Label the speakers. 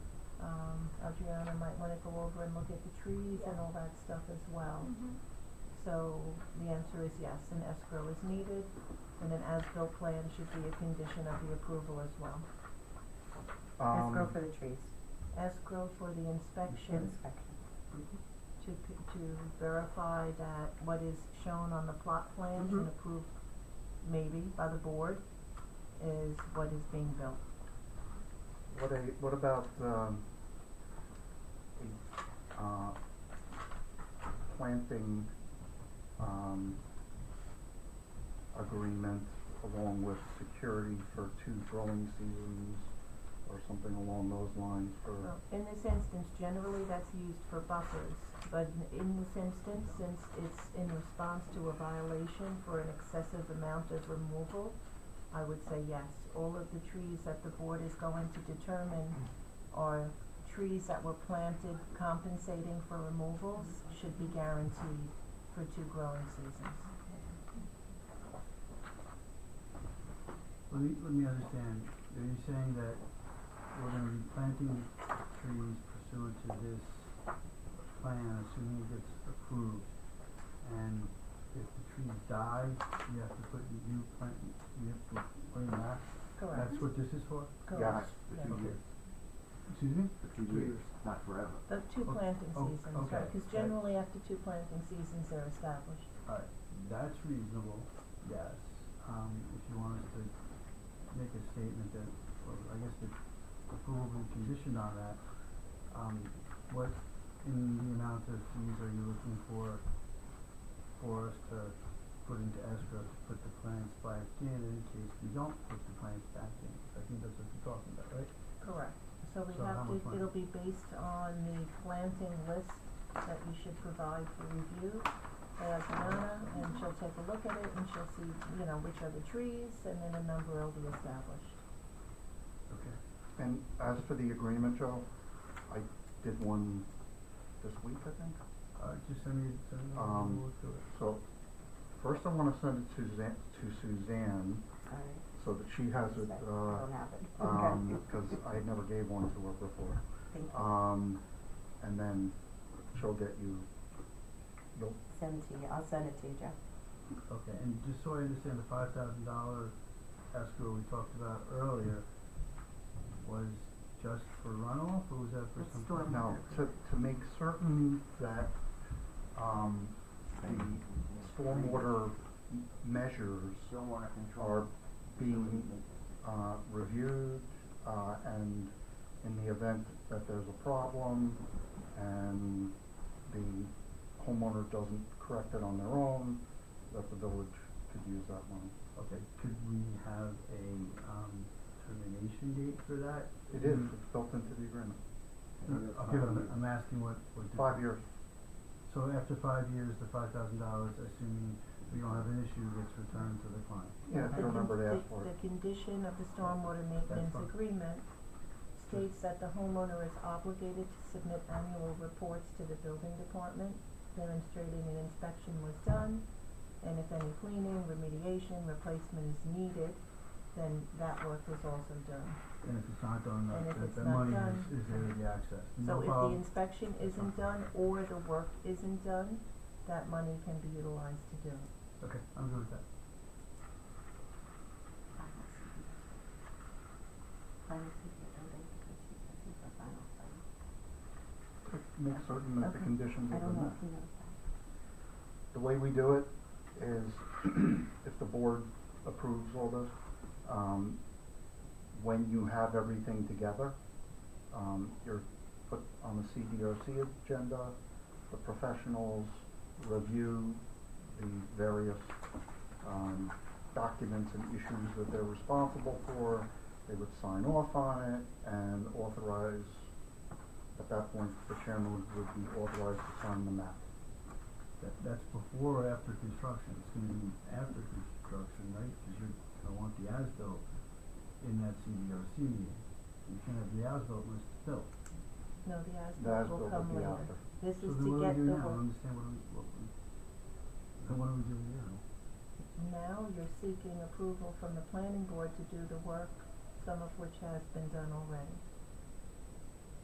Speaker 1: Um, Adriana might wanna go over and look at the trees and all that stuff as well.
Speaker 2: Mm.
Speaker 1: So the answer is yes, an escrow is needed, and an as-built plan should be a condition of the approval as well.
Speaker 2: Escrow
Speaker 3: Um,
Speaker 2: for the trees,
Speaker 1: Escrow for the inspection
Speaker 2: inspection.
Speaker 1: to, c- to verify that what is shown on the plot plans and
Speaker 2: Mhm.
Speaker 1: approved maybe by the board is what is being built.
Speaker 3: what a, what about, um, a, uh, planting, um, agreement along with security for two growing seasons or something along those lines for,
Speaker 1: Well, In this instance, generally that's used for buffers, but in- in this instance, since it's in response to a violation for an excessive amount of removal, I would say yes. All of the trees that the board is going to determine are trees that were planted compensating for removals should be guaranteed for two growing seasons.
Speaker 4: Let me, let me understand, are you saying that we're gonna be planting trees pursuant to this plan, assuming it gets approved? And if the trees die, we have to put new plant, we have to put them back?
Speaker 1: Correct,
Speaker 4: That's what this is for?
Speaker 3: yes,
Speaker 1: correct.
Speaker 3: for
Speaker 1: Yeah.
Speaker 3: two
Speaker 4: Okay.
Speaker 3: years,
Speaker 4: Excuse me?
Speaker 5: For two years, not forever.
Speaker 1: The two
Speaker 4: O-
Speaker 1: planting
Speaker 4: o-
Speaker 1: seasons,
Speaker 4: okay.
Speaker 1: right, cause generally after two planting seasons, they're established.
Speaker 4: Alright, that's reasonable, yes. Um, if you want us to make a statement that, or I guess the approval will be conditioned on that, um, what in the amount of fees are you looking for, for us to put into escrow to put the plans back in, in case we don't put the plans back in? I think that's what you're talking about, right?
Speaker 1: Correct, so we
Speaker 4: So how
Speaker 1: have to,
Speaker 4: much money?
Speaker 1: it'll be based on the planting list that you should provide for review by Adriana, and she'll take a look at it, and she'll see, you know, which are the trees, and then a number will be established.
Speaker 4: Okay.
Speaker 3: And as for the agreement, Joe, I did one this week, I think.
Speaker 4: Uh, just send me, send me,
Speaker 3: Um,
Speaker 4: we'll look through it.
Speaker 3: So first I wanna send it to Zan, to Suzanne,
Speaker 2: Alright.
Speaker 3: so that she has it,
Speaker 2: Inspection. Don't
Speaker 3: uh,
Speaker 2: have it. Okay.
Speaker 3: um 'cause cause I never gave one to her before.
Speaker 2: Thank you.
Speaker 4: uh,
Speaker 3: Um, and then she'll get you, you'll,
Speaker 2: Send it to you, I'll send it to you, Jeff.
Speaker 4: Okay, and just so I understand, the five thousand dollar escrow we talked about earlier was just for runoff, or was that for
Speaker 2: That's
Speaker 4: something?
Speaker 2: storm.
Speaker 3: no, to, to make certain that, um, the stormwater m- measures
Speaker 5: Stormwater control.
Speaker 3: are being uh, reviewed, uh, and in the event that there's a problem and the homeowner doesn't correct it on their own, that the village could use that money.
Speaker 4: Okay, could we have a, um, termination date for that?
Speaker 3: It is,
Speaker 2: Mm-hmm.
Speaker 3: it's built into the agreement,
Speaker 4: No,
Speaker 5: Another
Speaker 4: Okay,
Speaker 5: five
Speaker 4: I'm,
Speaker 5: years.
Speaker 4: I'm asking what, what. the-
Speaker 3: five years.
Speaker 4: So after five years, the five thousand dollars, assuming we don't have an issue, gets returned to the client.
Speaker 3: Yeah, if
Speaker 1: The
Speaker 3: you
Speaker 1: con-
Speaker 3: remember to ask
Speaker 1: the-
Speaker 3: for it.
Speaker 1: The condition of the stormwater maintenance
Speaker 4: fine.
Speaker 1: agreement states that the homeowner is obligated to submit annual reports to the building department demonstrating an inspection was done, and if any cleaning, remediation, replacement is needed, then that work was also done.
Speaker 4: And if it's not done,
Speaker 1: And
Speaker 4: that,
Speaker 1: if
Speaker 4: that,
Speaker 1: it's
Speaker 4: that
Speaker 1: not
Speaker 4: money
Speaker 1: done-
Speaker 4: is, is there to be accessed,
Speaker 1: So
Speaker 4: no
Speaker 1: if the
Speaker 4: problem,
Speaker 1: inspection isn't done or the work isn't done, that money can be utilized to do it.
Speaker 4: okay, I'm good with that.
Speaker 2: Final secret. Final secret, I don't think because she I think the final, final.
Speaker 3: Make certain that the
Speaker 2: Okay.
Speaker 3: conditions
Speaker 2: I
Speaker 3: are
Speaker 2: don't know
Speaker 3: met.
Speaker 2: if he knows that.
Speaker 3: The way we do it is if the board approves all this, um, when you have everything together, um, you're put on the CDRC agenda, the professionals review the various, um, documents and issues that they're responsible for. They would sign off on it and authorize, at that point, the chairman would be authorized to sign the map.
Speaker 4: That, that's before or after construction, it's gonna be after construction, right? Cause you're gonna want the as-built in that CDRC meeting. You can't have the as-built list built.
Speaker 1: No, the
Speaker 3: The
Speaker 1: as-built
Speaker 3: as-built
Speaker 1: will
Speaker 3: would
Speaker 1: come
Speaker 3: be
Speaker 1: later.
Speaker 3: after.
Speaker 1: This
Speaker 4: So
Speaker 1: is
Speaker 4: then
Speaker 1: to
Speaker 4: what do
Speaker 1: get
Speaker 4: we do
Speaker 1: the
Speaker 4: now? I
Speaker 1: work.
Speaker 4: don't understand what do we, what we, then what are we doing now?
Speaker 1: Now you're seeking approval from the planning board to do the work, some of which has been done already.